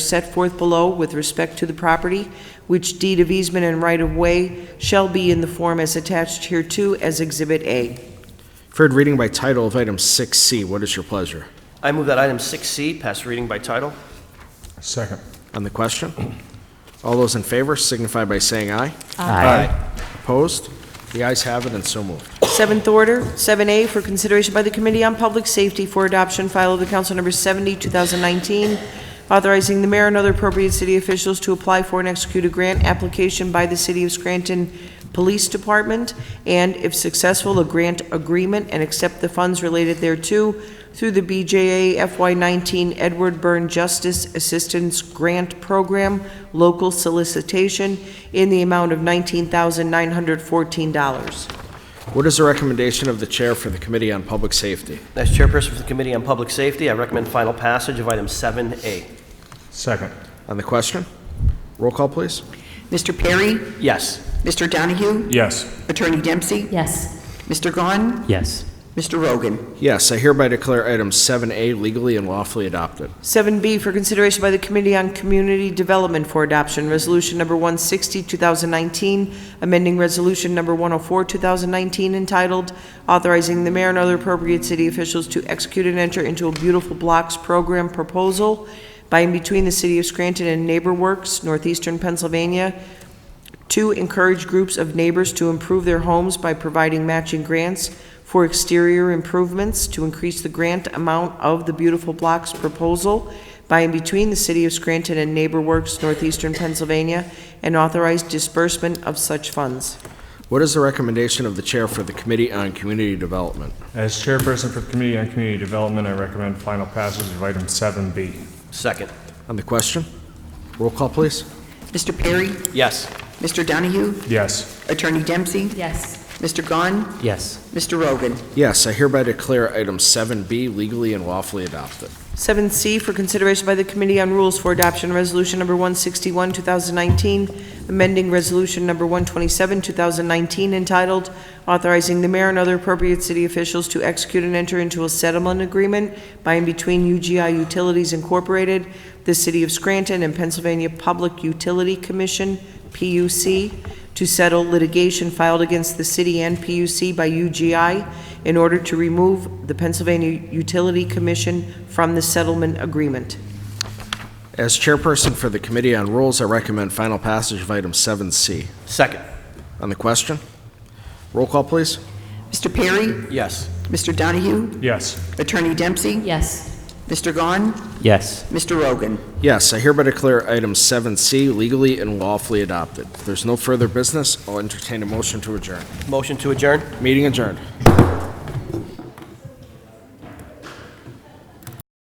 set forth below with respect to the property, which deed of easement and right-of-way shall be in the form as attached hereto as Exhibit A. Third reading by title of item 6C. What is your pleasure? I move that item 6C pass reading by title. Second. On the question? All those in favor signify by saying aye. Opposed? The ayes have it and so moved. Seventh order, 7A, for consideration by the Committee on Public Safety for Adoption, file of the Council Number 70, 2019, authorizing the mayor and other appropriate city officials to apply for and execute a grant application by the City of Scranton Police Department, and if successful, a grant agreement and accept the funds related thereto through the BJA FY19 Edward Byrne Justice Assistance Grant Program, local solicitation, in the amount of $19,914. What is the recommendation of the chair for the Committee on Public Safety? As chairperson for the Committee on Public Safety, I recommend final passage of item 7A. Second. On the question? Roll call, please. Mr. Perry? Yes. Mr. Donahue? Yes. Attorney Dempsey? Yes. Mr. Gahn? yes, Mr. Rogan? Yes, I hereby declare item 7A legally and lawfully adopted. 7B for consideration by the Committee on Community Development for Adoption, Resolution Number 160, 2019, amending Resolution Number 104, 2019, entitled Authorizing the Mayor and Other Appropriate City Officials to Execute and Enter into a Beautiful Blocks Program Proposal by and between the City of Scranton and NeighborWorks, Northeastern Pennsylvania, to encourage groups of neighbors to improve their homes by providing matching grants for exterior improvements to increase the grant amount of the Beautiful Blocks proposal by and between the City of Scranton and NeighborWorks, Northeastern Pennsylvania, and authorize disbursement of such funds. What is the recommendation of the chair for the Committee on Community Development? As chairperson for the Committee on Community Development, I recommend final passage of item 7B. Second. On the question? Roll call, please. Mr. Perry? Yes. Mr. Donahue? Yes. Attorney Dempsey? Yes. Mr. Gahn? yes, Mr. Rogan? Yes, I hereby declare item 7B legally and lawfully adopted. 7C for consideration by the Committee on Rules for Adoption, Resolution Number 161, 2019, amending Resolution Number 127, 2019, entitled Authorizing the Mayor and Other Appropriate City Officials to Execute and Enter into a Settlement Agreement by and between UGI Utilities Incorporated, the City of Scranton, and Pennsylvania Public Utility Commission, PUC, to settle litigation filed against the city and PUC by UGI in order to remove the Pennsylvania Utility Commission from the settlement agreement. As chairperson for the Committee on Rules, I recommend final passage of item 7C. Second. On the question? Roll call, please. Mr. Perry? Yes. Mr. Donahue? Yes. Attorney Dempsey? Yes. Mr. Gahn? yes, Mr. Rogan? Yes, I hereby declare item 7C legally and lawfully adopted. If there's no further business, I'll entertain a motion to adjourn. Motion to adjourn? Meeting adjourned.